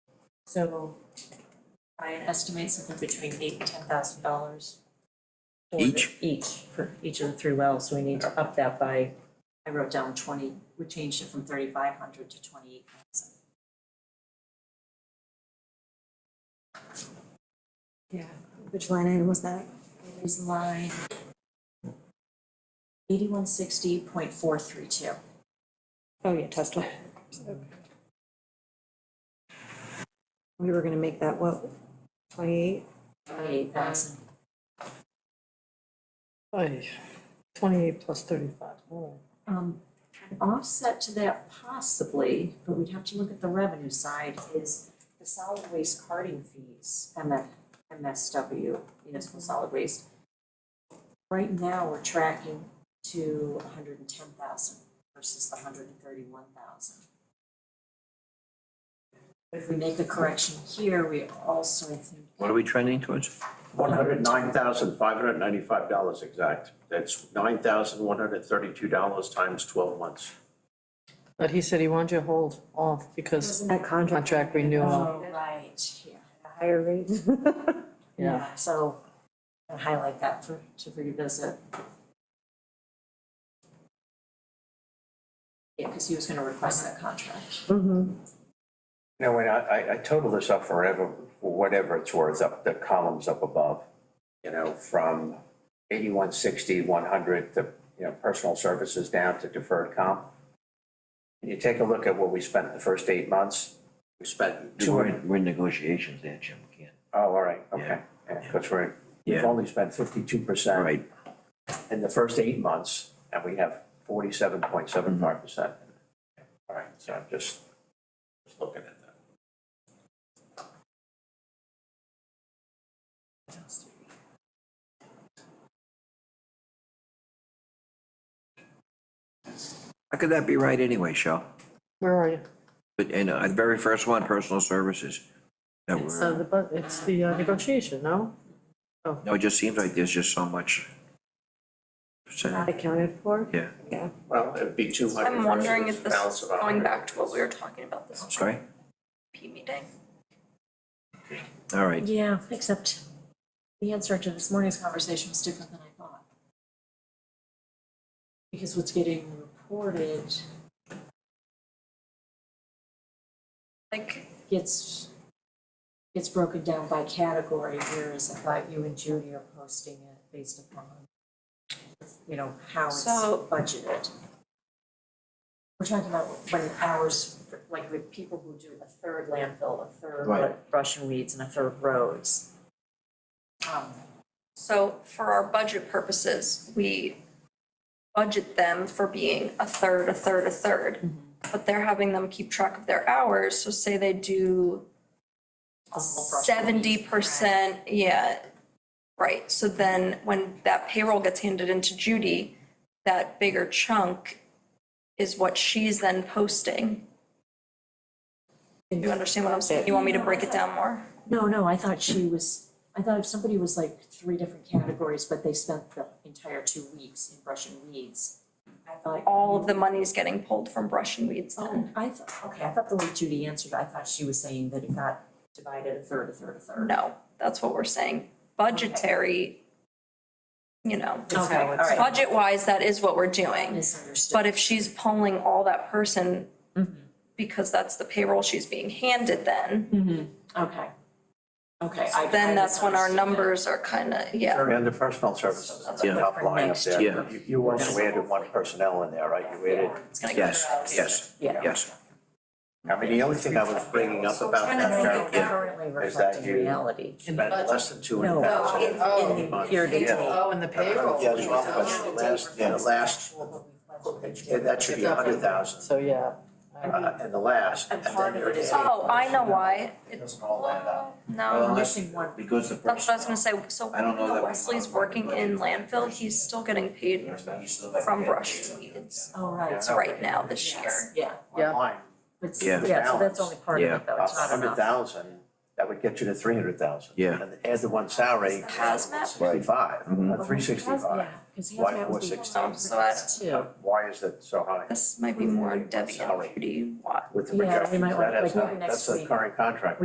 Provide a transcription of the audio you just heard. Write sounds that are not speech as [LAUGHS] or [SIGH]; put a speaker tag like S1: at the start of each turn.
S1: So Ryan estimates something between eight and ten thousand dollars.
S2: Each?
S1: Each, for each of the three wells, so we need to up that by, I wrote down twenty, we changed it from thirty-five hundred to twenty-eight thousand. Yeah,
S3: Which line item was that?
S1: it is line eighty-one sixty point four three two.
S3: Oh, yeah, test one. We were gonna make that, what, twenty-eight?
S1: Twenty-eight thousand.
S4: Ay, twenty-eight plus thirty-five, oh. all
S1: Um, an offset to that possibly, but we'd have to look at the revenue side, is the solid waste carding fees, MF, MSW, municipal solid waste. Right now, we're tracking to hundred and ten thousand versus the hundred and thirty-one thousand. If we make a correction here, we also, I think,
S2: What are we trending towards?
S5: One hundred nine thousand five hundred ninety-five dollars exact. That's nine thousand one hundred thirty-two dollars times twelve months.
S4: right. But he said he wanted you to hold off because
S3: That contract.
S4: contract renewal,
S1: oh, right, yeah.
S3: Higher rate. [LAUGHS]
S4: yeah.
S1: So I'll highlight that for, to revisit. Yeah, because he was gonna request that contract.
S3: Mm-hmm.
S5: Now, when I, I, I total this up forever, for whatever it's worth, up the columns up above, you know, from eighty-one sixty, one hundred, to, you know, personal services down to deferred comp. And you take a look at what we spent the first eight months, we spent two
S2: We're
S5: hundred,
S2: in, we're in negotiations there, Jim, we can't.
S5: oh, all right, okay,
S2: Yeah.
S5: yeah, that's right. We've
S2: Yeah.
S5: only spent fifty-two percent.
S2: All right,
S5: in the first eight months, and we have forty-seven point seven
S2: Mm-hmm.
S5: five percent. All right, so I'm just, just looking at that.
S2: how could that be right anyway, Shel?
S4: Where are you?
S2: But, and uh, the very first one, personal services. that
S4: It's
S2: we're-
S4: uh, the, bu- it's the uh, negotiation, no?
S2: No, it just seems like there's just so much. percent-
S3: Not accounted for?
S2: Yeah,
S3: Yeah.
S5: Well, it'd be two hundred
S6: I'm wondering if this
S5: balance
S6: is
S5: of
S6: going back to what we were talking about this
S2: I'm sorry,
S6: P meeting.
S2: all right.
S1: Yeah, except the answer to this morning's conversation was different than I thought. Because what's getting reported
S6: Like,
S1: gets, gets broken down by category, whereas I thought you and Judy are posting it based upon, you know, how it's
S6: So-
S1: budgeted. We're talking about when hours, like with people who do a third landfill, a third
S2: Right.
S1: brush and weeds, and a third roads. Um,
S6: so for our budget purposes, we budget them for being a third, a third, a third. But they're having them keep track of their hours, so say they do
S1: a whole brush and weeds.
S6: seventy percent, yeah. Right, so then when that payroll gets handed into Judy, that bigger chunk is what she's then posting. You understand what I'm saying? You want me to break it down more?
S1: No, no, I thought she was, I thought if somebody was like three different categories, but they spent the entire two weeks in brush and weeds. I thought
S6: all of the money's getting pulled from brush and weeds
S1: Oh,
S6: then.
S1: I thought, okay, I thought the way Judy answered, I thought she was saying that it got divided a third, a third, a third.
S6: No, that's what we're saying. Budgetary, you know,
S1: Okay, all right.
S6: budget wise, that is what we're
S1: I
S6: doing.
S1: Misunderstood. Mm-hmm,
S6: But if she's pulling all that person, because that's the payroll she's being handed then,
S1: mm-hmm, Okay. Okay, I. I
S6: then that's when our
S1: misunderstood that.
S6: numbers are kind of, yeah.
S5: Under personal services, it's the
S2: Yeah.
S5: top line up
S1: Next
S5: there.
S2: year.
S5: You- You also added one personnel in there, right? You added,
S6: It's gonna go
S2: Yes,
S6: through.
S2: yes,
S1: Yeah.
S2: yes.
S5: I mean, the only thing I was bringing up about
S1: Trying to
S5: that,
S1: make it
S5: Carol,
S1: currently
S5: Is that
S1: reflecting
S5: you?
S1: reality.
S5: spent less than two
S1: No,
S5: hundred thousand.
S1: in, in
S2: Oh,
S1: the year to date.
S4: and the
S5: Yeah, as well, but last, yeah, the last, and that should be a hundred thousand,
S4: So, yeah.
S5: uh, and the last, and
S1: And
S5: then
S1: part of
S5: there
S1: it
S5: is.
S1: is.
S6: Oh, I know why.
S5: It doesn't all add up.
S6: No,
S2: unless-
S1: missing one.
S2: Because the
S6: that's what I was gonna
S2: personnel-
S6: say. So
S2: I don't know that
S6: while
S2: we-
S6: Wesley's working in landfill, he's still getting paid
S2: You still have to
S6: from
S2: get-
S6: brush and weeds
S1: Oh, right.
S5: Yeah.
S6: right now this year.
S1: Yes, yeah.
S4: Yeah.
S5: Line,
S1: But, s-
S2: Yeah.
S1: yeah, so that's only part of
S2: Yeah.
S1: it though, it's not
S5: hundred
S1: enough.
S5: thousand, that would get you to three hundred thousand.
S2: Yeah.
S5: And add the one salary,
S6: Hazmat?
S5: sixty-five,
S2: Mhm.
S5: three sixty-five.
S1: Because
S5: Why
S1: hazmat would be
S5: 460?
S1: one
S6: So I-
S1: too.
S5: Why is it so high
S6: This might be more Debbie and
S5: Salary.
S6: Judy Watt.
S5: with the
S1: Yeah, we
S5: projections?
S1: might wanna-
S5: That has
S1: like, maybe
S5: not-
S1: next
S5: That's the
S1: week.
S5: current contract.